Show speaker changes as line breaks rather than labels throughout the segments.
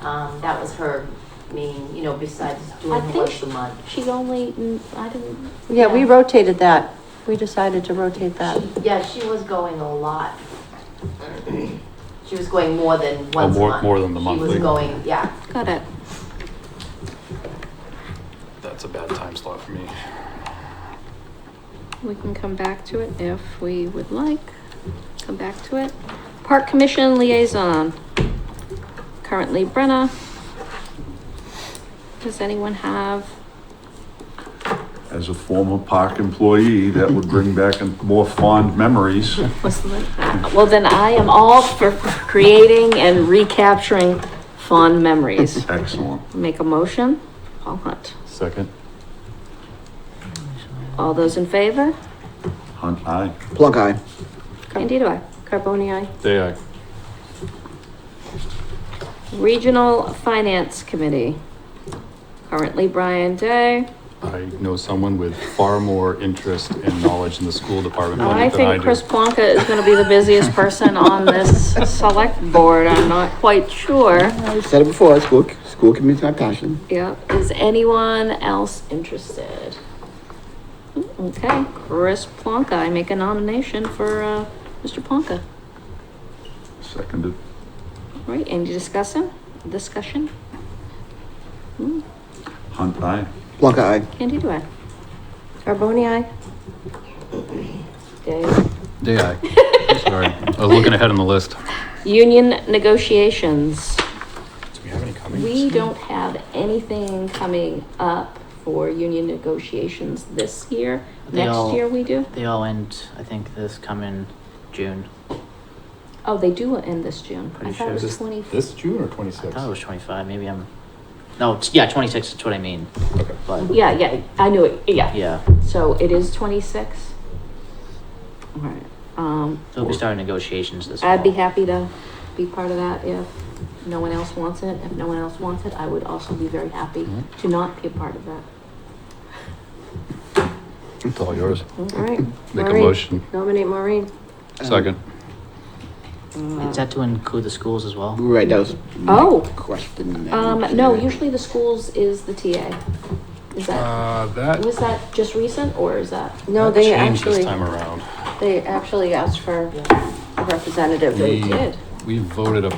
Um, that was her main, you know, besides
I
doing her
think
once a month.
She's only, mm, I didn't.
Yeah, we rotated that. We decided to rotate that.
She- Yeah, she was going a lot. She was going more than once a
Oh, more-
month.
more than the
She
monthly.
was going, yeah.
Got it.
That's a bad time slot for me.
We can come back to it if we would like. Come back to it. Park Commission Liaison. Currently Brenna. Does anyone have,
As a former park employee, that would bring back more fond memories.
what's the, uh, well, then I am all for creating and recapturing fond memories.
Excellent.
Make a motion. Paul Hunt.
Second?
All those in favor?
Hunt, aye.
Plunk eye.
Candida I. Carboni I.
Day aye.
Regional Finance Committee. Currently Brian Day.
I know someone with far more interest and knowledge in the school department
I
budget than I
think Chris
do.
Plonka is gonna be the busiest person on this select board, I'm not quite sure.
I said it before, school, school committee's my passion.
Yeah, is anyone else interested? Okay, Chris Plonka, I make a nomination for, uh, Mr. Plonka.
Seconded.
All Right, any discussion? Discussion? Hmm,
Hunt, aye.
Plunk eye.
Candy, do I? Carboni, aye? Dave?
Day aye. Sorry, I was looking ahead on the list.
Union negotiations.
Do we have any coming?
We don't have anything coming up for union negotiations this year.
They
Next
all-
year we do?
They all end, I think, this coming June.
Oh, they do end this June. I
Pretty
thought
sure.
it was
This-
twenty.
This June or
I
twenty-six?
thought it was 25. Maybe I'm. No, it's, yeah, 26 is what I mean.
Okay.
But
Yeah, yeah, I knew it, yeah.
yeah,
So it is twenty-six? Alright, um,
so we'll be starting negotiations this.
I'd be
fall.
happy to be part of that if no one else wants it. If no one else wants it, I would also be very happy
Mm-hmm.
to not be a part of that.
It's all yours.
Alright.
Make a motion.
Nominate Maureen.
Second.
Is that to include the schools as well?
Right, that was. my
Oh.
Question. that
Um,
you
no,
said.
usually the schools is the TA. Is that,
Uh, that.
was that just recent or is that?
No,
that
they
changed
actually,
This time around.
they actually asked for a representative.
They
We-
did.
We voted a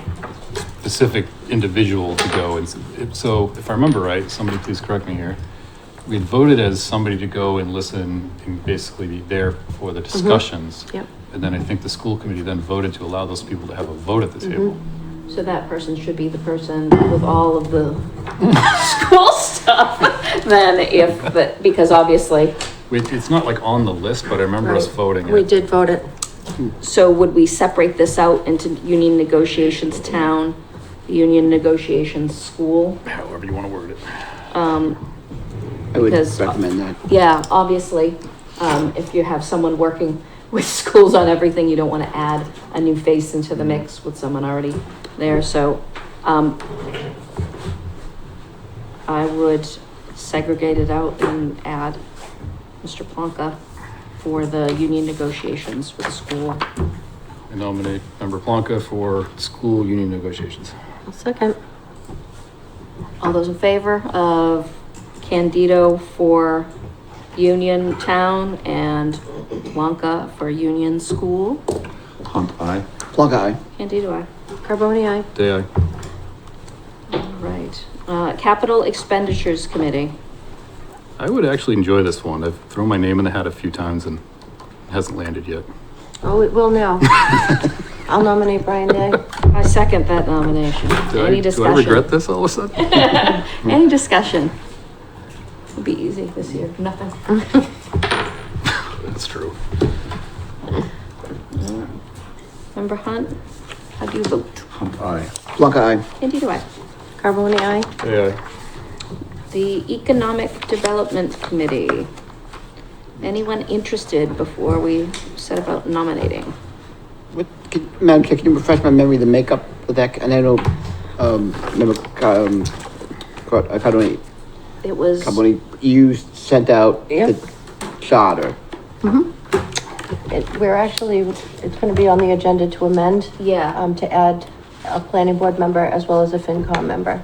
specific individual to go, and s- if- so, if I remember right, somebody please correct me here. We had voted as somebody to go and listen and basically be there for the discussions.
Yep.
And then I think the school committee then voted to allow those people to have a vote at the table.
So that person should be the person with all of the school stuff then if, but, because obviously.
It- It's not like on the list, but I remember us
Right.
voting
We
it.
did vote it.
So would we separate this out into union negotiations town, union negotiations school? Um,
However you want to word it.
I would
because- uh,
recommend that.
Yeah, obviously, um, if you have someone working with schools on everything, you don't wanna add a new face into the mix with someone already there, so, um, I would segregate it out and add Mr. Plonka for the union negotiations with school.
I nominate member Plonka for school union negotiations.
I'll second.
All those in favor of Candido for union town and Plonka for union school?
Hunt, aye.
Plunk eye.
Candido, I.
Carboni, aye.
Day aye.
Right, uh, Capital Expenditures Committee.
I would actually enjoy this one. I've thrown my name in the hat a few times and it hasn't landed yet.
Oh, it will now. I'll nominate Brian Day.
I second that nomination.
Do I-
Any
Do I regret
discussion?
this all of a sudden?
Any discussion? It'll be easy this year, nothing.
That's true.
Member Hunt, how do you vote?
Hunt, aye.
Plunk eye.
Indeed, do I.
Carboni, aye.
Yeah.
The Economic Development Committee. Anyone interested before we set about nominating?
What, can, Madam Chair, can you refresh my memory, the makeup of that, and I know, um, remember, um, Car- uh, Carboni,
It was,
Carboni, you sent out
Yep.
the charter.
It, we're actually, it's gonna be on the agenda to amend,
yeah,
um, to add a planning board member as well as a FinCom member.